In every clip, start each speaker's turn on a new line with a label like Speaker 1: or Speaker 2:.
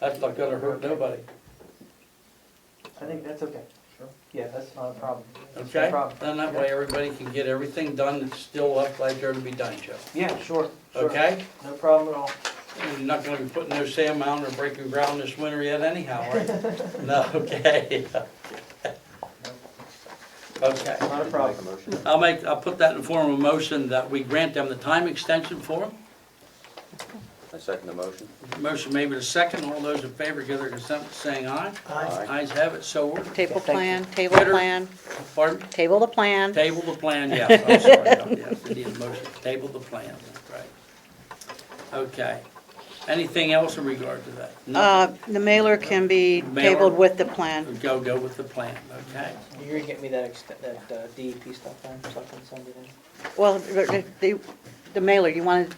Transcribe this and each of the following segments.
Speaker 1: That's not gonna hurt nobody,
Speaker 2: I think that's okay. Sure. Yeah, that's not a problem. That's no
Speaker 1: okay?
Speaker 2: problem.
Speaker 1: Then that way, everybody can get everything done that's still left like there to be done, Joe,
Speaker 2: Yeah, sure, sure.
Speaker 1: okay?
Speaker 2: No problem at all.
Speaker 1: You're not gonna be putting no sand mound or breaking ground this winter yet anyhow, are you? No, okay. Okay,
Speaker 2: Not a problem.
Speaker 1: I'll make, I'll put that in form of a motion that we grant them the time extension for them.
Speaker 3: I second the motion.
Speaker 1: Motion made with a second, all those in favor give their consent by saying aye.
Speaker 3: Aye.
Speaker 1: Ayes have it, so ordered.
Speaker 4: Table
Speaker 2: Yeah, thank
Speaker 4: plan, table
Speaker 1: Later.
Speaker 4: plan,
Speaker 1: Pardon?
Speaker 4: table the plan.
Speaker 1: Table the plan, yeah, I'm sorry, yeah, yeah, we need a motion, to table the plan, that's right. Okay, anything else in regard to that?
Speaker 4: Uh,
Speaker 1: Nothing?
Speaker 4: the mailer can be
Speaker 1: Mailer.
Speaker 4: tabled with the plan.
Speaker 1: Go, go with the plan, okay?
Speaker 2: You're gonna get me that ext- that uh, DEP stuff then, so I can send it in?
Speaker 4: Well, the, the- the mailer, you wanna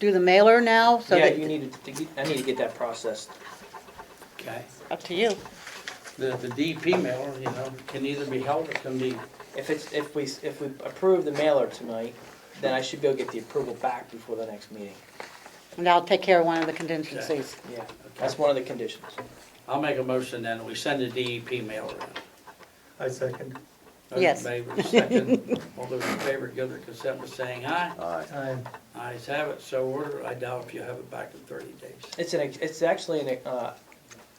Speaker 4: do the mailer now? So
Speaker 2: Yeah,
Speaker 4: that
Speaker 2: you need to, to get- I need to get that processed.
Speaker 1: Okay,
Speaker 4: Up to you.
Speaker 1: the, the DP mailer, you know, can either be held or can be,
Speaker 2: If it's, if we, s- if we approve the mailer tonight, then I should go get the approval back before the next meeting.
Speaker 4: And I'll take care of one of the contingencies.
Speaker 2: Yeah, that's one of the conditions.
Speaker 1: I'll make a motion then, we send the E DEP mailer in.
Speaker 5: I second.
Speaker 1: Those
Speaker 4: Yes.
Speaker 1: in favor, second, all those in favor give their consent by saying aye.
Speaker 3: Aye.
Speaker 5: Aye.
Speaker 1: Ayes have it, so ordered, I doubt if you have it back in thirty days.
Speaker 2: It's an, ex- it's actually an, uh,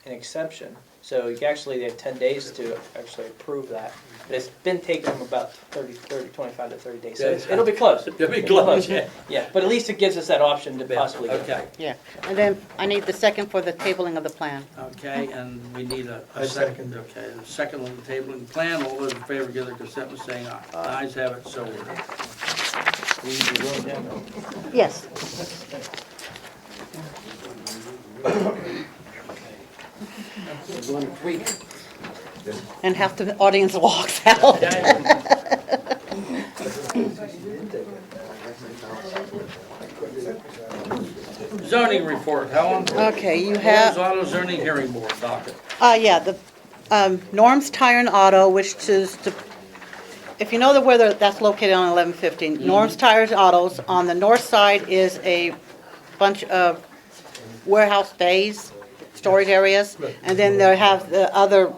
Speaker 2: an exception, so you actually, they have ten days to actually approve that. But it's been taking them about 30, 30, 25 to thirty days, so it's- it'll be close.
Speaker 1: To be close, yeah.
Speaker 2: Yeah, but at least it gives us that option to possibly get
Speaker 1: Okay,
Speaker 4: Yeah, and then I need the second for the tabling of the plan.
Speaker 1: Okay, and we need a. a
Speaker 5: I second.
Speaker 1: Okay, a second on the table and plan, all those in favor give their consent by saying aye.
Speaker 3: Aye.
Speaker 1: Ayes have it, so ordered.
Speaker 4: Yes. And half the audience walks out.
Speaker 1: Zoning report, Helen.
Speaker 4: Okay, you have.
Speaker 1: Holmes Auto Zoning Hearing Board docket.
Speaker 4: Uh, yeah, the, um, Norm's Tire and Auto, which is the, if you know the weather, that's located on eleven fifteen. Norm's Tires and Autos, on the north side is a bunch of warehouse bays, storage areas. And then they have the other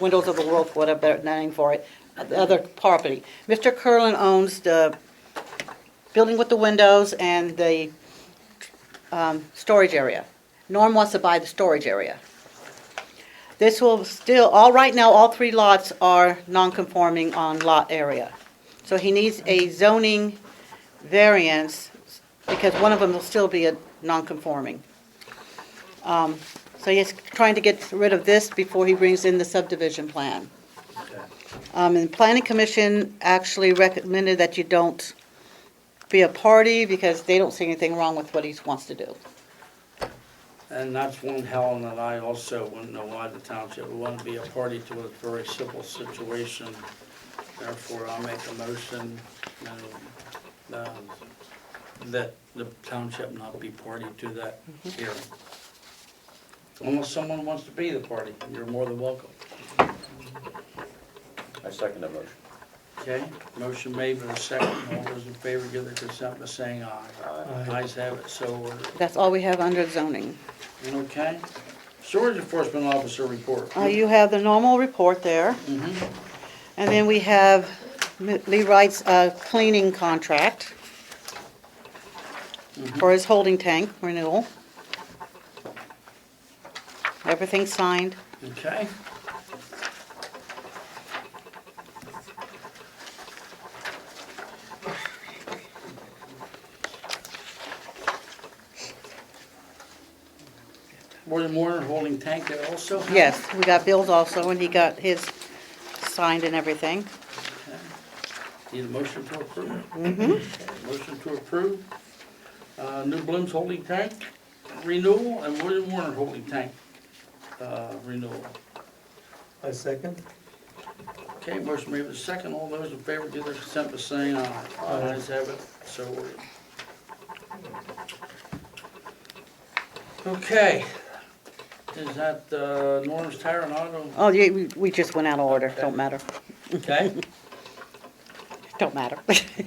Speaker 4: Windows of the World, whatever name for it, the other property. Mr. Curlin owns the building with the windows and the, um, storage area. Norm wants to buy the storage area. This will still, all right now, all three lots are non-conforming on lot area. So he needs a zoning variance because one of them will still be a non-conforming. Um, So he's trying to get rid of this before he brings in the subdivision plan. Um, And the Planning Commission actually recommended that you don't be a party because they don't see anything wrong with what he wants to do.
Speaker 1: And that's one Helen and I also wouldn't know why the township would want to be a party to a very simple situation. Therefore, I'll make a motion um, um, that the township not be party to that hearing. Unless someone wants to be the party, you're more than welcome.
Speaker 3: I second the motion.
Speaker 1: Okay, motion made with a second. All those in favor give their consent by saying aye.
Speaker 3: Aye.
Speaker 1: Ayes have it, so ordered.
Speaker 4: That's all we have under zoning.
Speaker 1: Okay? Storage enforcement officer report.
Speaker 4: Uh, You have the normal report there.
Speaker 1: Mhm.
Speaker 4: And then we have M- Lee Wright's uh, cleaning contract for his holding tank renewal. Everything signed.
Speaker 1: Okay. More than more holding tank there also? huh?
Speaker 4: Yes, we got bills also, and he got his signed and everything.
Speaker 1: Need a motion to approve? Motion to approve. Uh, New Bloom's holding tank renewal and William Warner holding tank, uh, renewal.
Speaker 5: I second.
Speaker 1: Okay, motion made with a second. All those in favor give their consent by saying aye.
Speaker 5: Aye.
Speaker 1: Ayes have it, so ordered. Okay. Is that uh, Norm's Tire and Auto?
Speaker 4: Oh, yeah, we we just went out of order, don't matter,
Speaker 1: Okay.
Speaker 4: don't matter.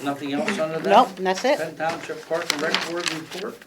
Speaker 1: Nothing else under that?
Speaker 4: Nope, and that's it.
Speaker 1: Penn Township Park and Rec Board report?